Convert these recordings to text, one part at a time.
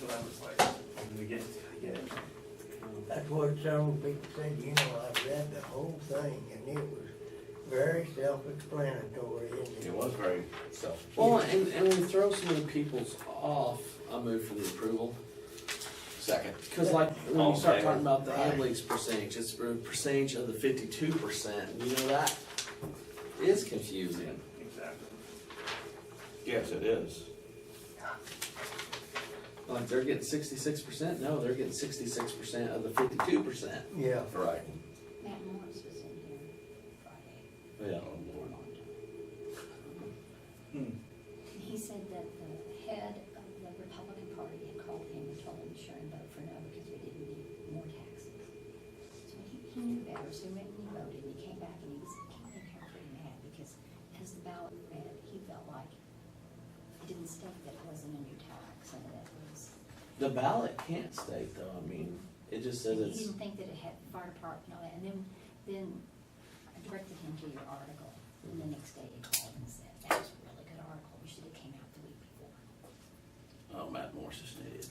what I was like, when we get, I get it. That's what several people said, you know, I read the whole thing and it was very self-explanatory, isn't It it? was very self. Well, and, and we throw so many people's off, I move for the approval. Second. Because like, when All you start favor? talking about the ad leaks percentage, it's a percentage of the fifty-two percent, you know, that is confusing. Exactly. Yes, it is. Like, they're getting sixty-six percent, no, they're getting sixty-six percent of the fifty-two percent. Yeah, Right. Matt Morris was in here Friday, Yeah. Oh, or Lord. on, Hmm. and he said that the head of the Republican Party had called him and told him to sure and vote for no because we didn't need more taxes. So he, he knew better, so he went and he voted, and he came back and he was, he came in here pretty mad because as the ballot read, he felt like it didn't state that it wasn't a new tax and that it was. The ballot can't state though, I mean, it just says And He it's, didn't think that it had fire department and all that, and then, then I directed him to your article, and the next day he called and said, that was a really good article, we should have came out the week before. Oh, Matt Morris is needed.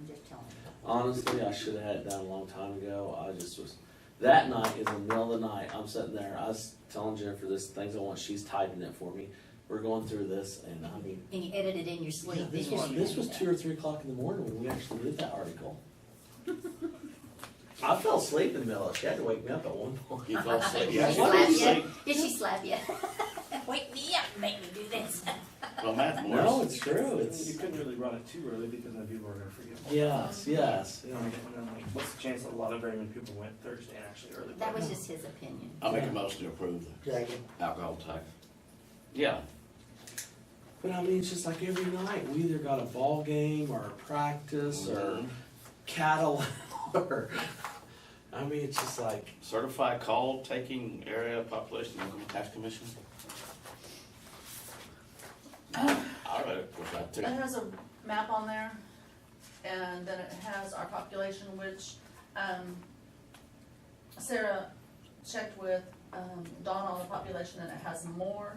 I'm just telling you. honestly, I should have had it done a long time ago, I just was, that night is the middle of the night, I'm sitting there, I was telling Jennifer this, things I want, she's typing it for me. We're going through this and I mean, And you edited in your sleep. Yeah, this didn't was, you? this was two or three o'clock in the morning when we actually did that article. I fell asleep in the middle, she had to wake me up at one point. He fell asleep. Did Yeah, she he fell slap asleep. you? Did she slap you? Wake me up, make me do this. Well, Matt No, Morris. it's true, You it's, couldn't really run it too early because then people were gonna forget. yes, yes, You know, and then like, what's the chance that a lot of Berryman people went Thursday and actually early? That was just his opinion. I'll make a motion to approve the second, alcohol tax. Yeah, but I mean, it's just like every night, we either got a ball game or a practice or Mhm. cattle or, I mean, it's just like, certified call taking area population, Oklahoma Tax Commission. I read it, which I It Uh-huh. took. has a map on there, and then it has our population, which, um, Sarah checked with, um, Dawn on the population, and it has more.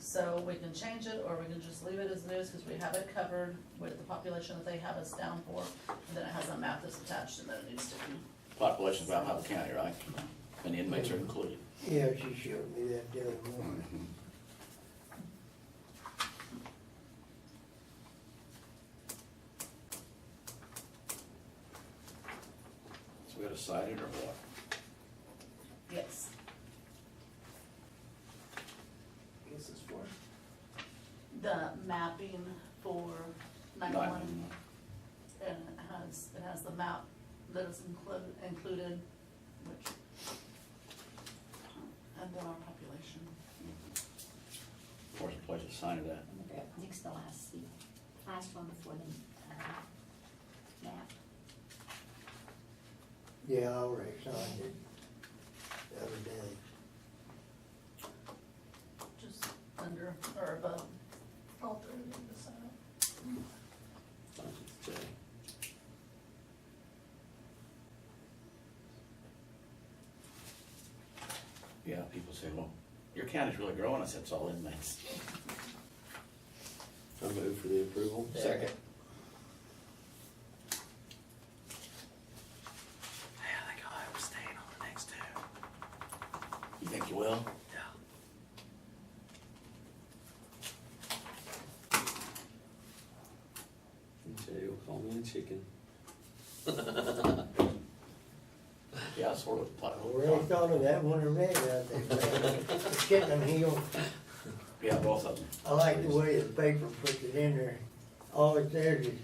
So we can change it, or we can just leave it as it is, cause we have it covered with the population that they have us down for. And then it has a map that's attached, and then it needs to be, Population's about Howell County, right? And inmates are included. yeah, she showed me that the other morning. So we gotta cite it or what? yes. This is for, The mapping for nine-one. Nine. And it has, it has the map that is included, included, which, and then our population. Where's the place to sign it at? Next to last, seat. last one before the, uh, map. Yeah, I already signed it the other day. Just under or above all three of the side. I just, uh, Yeah, people say, well, your county's really growing. I said, it's all inmates. I move for the approval. Second. Yeah, I think I was staying on the next two. You think you will? Jay will call me a chicken. Yeah, I sort of. I plot- Already thought of that one already, I think, the chicken heel. Yeah, both of them. I like the way the paper puts it in there. All it says is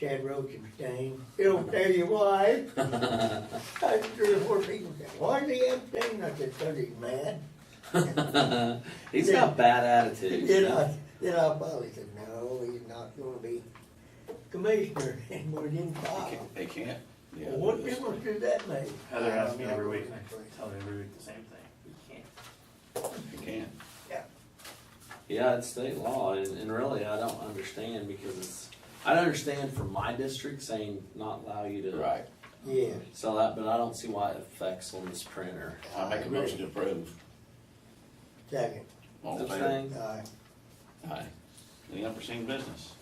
Chad Roach abstained. It'll tell you why. I three or four people said, why did he abstain? I said, cause he's mad. He's got bad attitudes. Then I, then I probably said, no, he's not gonna be commissioner anymore, didn't They file. can't- They can't. Yeah, Well, What it's- difference does that make? Heather asks me every week, and I tell her every week the same thing, you can't. They can't. Yeah, it's state law, and, and really, I don't understand because it's, I don't understand from my district saying not allow you to Right. Yeah, sell that, but I don't see why it affects on this printer. I make a motion to approve. second, All in Those favor? things. aye. Aye. Any unforeseen business?